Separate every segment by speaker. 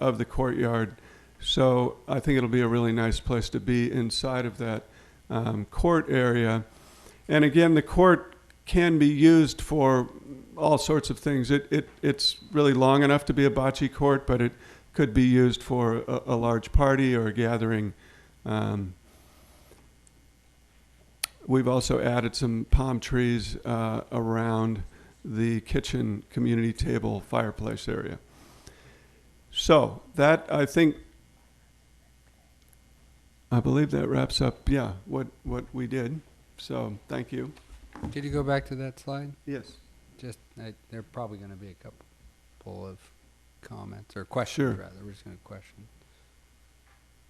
Speaker 1: of the courtyard. So I think it'll be a really nice place to be inside of that um, court area. And again, the court can be used for all sorts of things. It, it, it's really long enough to be a bocce court, but it could be used for a, a large party or a gathering. Um, we've also added some palm trees uh, around the kitchen community table fireplace area. So that I think I believe that wraps up yeah what what we did. So thank you.
Speaker 2: Did you go back to that slide?
Speaker 1: Yes.
Speaker 2: Just, I, there are probably gonna be a couple of comments or questions
Speaker 1: Sure.
Speaker 2: rather, we're just gonna question.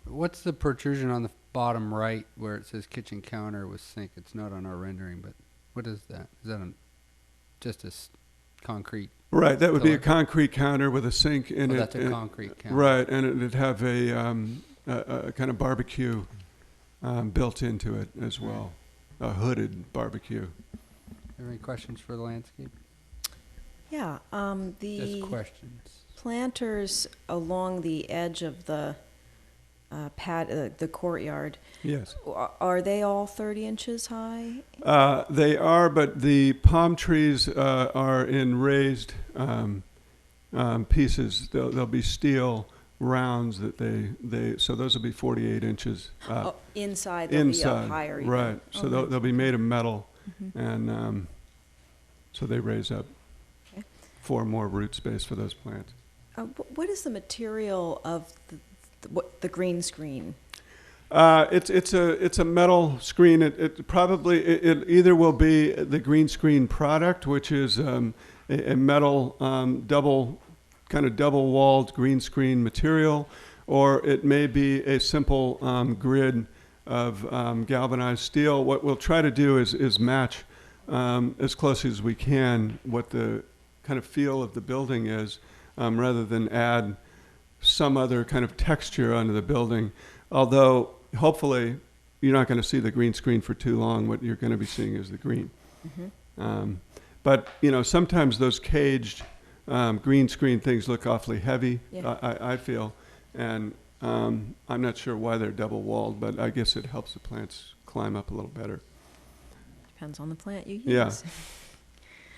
Speaker 2: What's the protrusion on the bottom right where it says kitchen counter with sink? It's not on our rendering, but what is that? Is that a, just a s- concrete,
Speaker 1: Right, that would be a
Speaker 2: Electric.
Speaker 1: concrete counter with a sink
Speaker 2: oh,
Speaker 1: in it.
Speaker 2: that's a
Speaker 1: and-
Speaker 2: concrete counter?
Speaker 1: Right, and it'd have a, um, a, a kind of barbecue um, built into it as well, a hooded barbecue.
Speaker 2: Any questions for the landscape?
Speaker 3: Yeah, um,
Speaker 2: Just
Speaker 3: the
Speaker 2: questions.
Speaker 3: planters along the edge of the uh, pat, uh, the courtyard,
Speaker 1: Yes.
Speaker 3: a- are they all thirty inches high?
Speaker 1: Uh, they are, but the palm trees uh, are in raised um, um, pieces. They'll, they'll be steel rounds that they, they so those will be 48 inches uh,
Speaker 3: Oh, Inside, they'll be
Speaker 1: inside.
Speaker 3: up higher even?
Speaker 1: right. So they'll,
Speaker 3: Okay.
Speaker 1: they'll be made of metal,
Speaker 3: Mhm.
Speaker 1: and um, so they raise up
Speaker 3: Okay.
Speaker 1: for more root space for those plants.
Speaker 3: Uh, wh- What is the material of the, the- what, the green screen?
Speaker 1: Uh, it's it's a it's a metal screen. It, it probably it, it either will be the green screen product, which is um, a, a metal um, double kind of double walled green screen material, or it may be a simple um, grid of um, galvanized steel. What we'll try to do is is match um, as closely as we can what the kind of feel of the building is, um, rather than add some other kind of texture onto the building. Although, hopefully, you're not going to see the green screen for too long. What you're going to be seeing is the green. Um, but you know, sometimes those caged um, green screen things look awfully heavy.
Speaker 3: Yeah.
Speaker 1: I, I, I feel, and um, I'm not sure why they're double walled, but I guess it helps the plants climb up a little better.
Speaker 3: Depends on the plant you
Speaker 1: Yeah.
Speaker 3: use.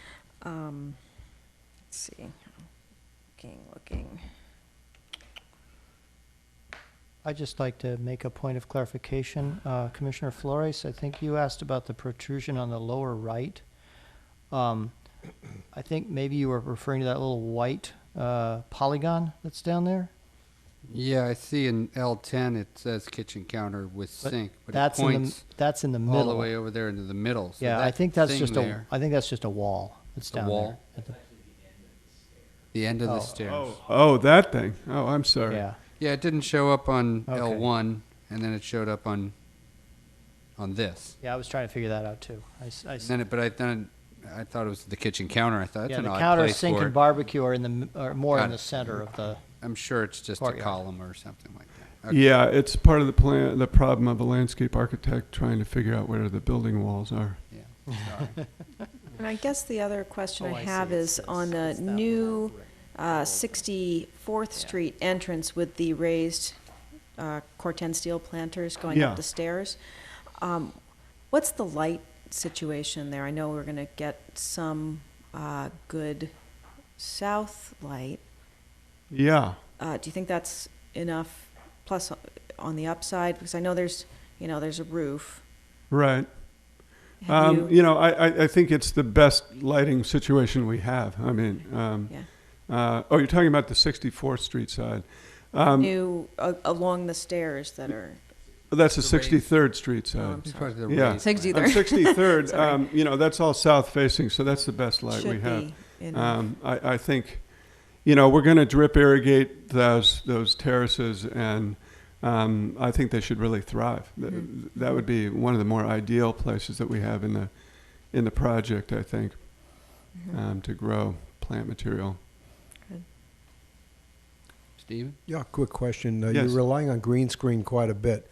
Speaker 3: Um, Let's see, looking, looking.
Speaker 4: I'd just like to make a point of clarification. Uh, Commissioner Flores, I think you asked about the protrusion on the lower right. Um, I think maybe you were referring to that little white uh, polygon that's down there.
Speaker 2: Yeah, I see in L ten, it says kitchen counter with
Speaker 4: But
Speaker 2: sink, but it
Speaker 4: That's in the,
Speaker 2: points
Speaker 4: that's in the
Speaker 2: all
Speaker 4: middle.
Speaker 2: the way over there into the middle. So
Speaker 4: Yeah, I
Speaker 2: that
Speaker 4: think that's
Speaker 2: thing
Speaker 4: just a,
Speaker 2: there,
Speaker 4: I think that's just a wall that's
Speaker 2: The
Speaker 4: down there.
Speaker 2: wall?
Speaker 4: At the-
Speaker 2: the end of the
Speaker 4: Oh.
Speaker 2: stairs.
Speaker 1: Oh, that thing. Oh, I'm sorry.
Speaker 4: Yeah,
Speaker 2: Yeah, it didn't show up on
Speaker 4: Okay.
Speaker 2: L one, and then it showed up on on this.
Speaker 4: yeah, I was trying to figure that out too. I s- I s-
Speaker 2: And then it, but I then I thought it was the kitchen counter. I thought that's
Speaker 4: Yeah,
Speaker 2: an
Speaker 4: the
Speaker 2: odd
Speaker 4: counter,
Speaker 2: place
Speaker 4: sink
Speaker 2: for
Speaker 4: and
Speaker 2: it.
Speaker 4: barbecue are in the, m- are more
Speaker 2: Got
Speaker 4: in
Speaker 2: it.
Speaker 4: the center of the,
Speaker 2: I'm sure it's just a
Speaker 4: Courtyard.
Speaker 2: column or something like that. Okay.
Speaker 1: Yeah, it's part of the plan, the problem of a landscape architect trying to figure out where the building walls are.
Speaker 2: Sorry.
Speaker 3: And I guess the other question
Speaker 4: Oh,
Speaker 3: I
Speaker 4: I see.
Speaker 3: have
Speaker 4: It's
Speaker 3: is
Speaker 4: this.
Speaker 3: on the
Speaker 4: It's that
Speaker 3: new
Speaker 4: little
Speaker 3: uh, 64th Street entrance with the raised uh, corten steel planters going
Speaker 1: Yeah.
Speaker 3: up the stairs. um, What's the light situation there? I know we're going to get some uh, good south light.
Speaker 1: Yeah.
Speaker 3: Uh, Do you think that's enough, plus o- on the upside? Because I know there's, you know, there's a roof.
Speaker 1: Right.
Speaker 3: Have
Speaker 1: Um,
Speaker 3: you-
Speaker 1: you know, I, I, I think it's the best lighting situation we have. I mean, um,
Speaker 3: Yeah.
Speaker 1: uh, oh, you're talking about the 64th Street side. Um,
Speaker 3: New, a- uh, along the stairs that are,
Speaker 1: that's the
Speaker 2: The raised-
Speaker 1: 63rd Street side.
Speaker 3: Um,
Speaker 2: It's probably the
Speaker 1: Yeah.
Speaker 2: raised
Speaker 3: Six
Speaker 2: one.
Speaker 3: either.
Speaker 1: On 63rd,
Speaker 3: Sorry.
Speaker 1: um, you know, that's all south facing, so that's the best light we
Speaker 3: should
Speaker 1: have.
Speaker 3: be enough.
Speaker 1: Um, I, I think, you know, we're going to drip irrigate those those terraces, and um, I think they should really thrive. Th-
Speaker 3: Mhm.
Speaker 1: That would be one of the more ideal places that we have in the in the project. I think
Speaker 3: Mhm.
Speaker 1: um, to grow plant material.
Speaker 2: Steven?
Speaker 5: Yeah, quick question. Uh,
Speaker 1: Yes.
Speaker 5: You're relying on green screen quite a bit,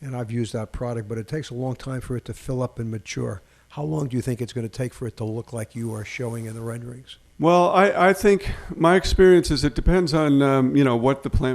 Speaker 5: and I've used that product, but it takes a long time for it to fill up and mature. How long do you think it's going to take for it to look like you are showing in the renderings?
Speaker 1: Well, I, I think my experience is it depends on um, you know what the plant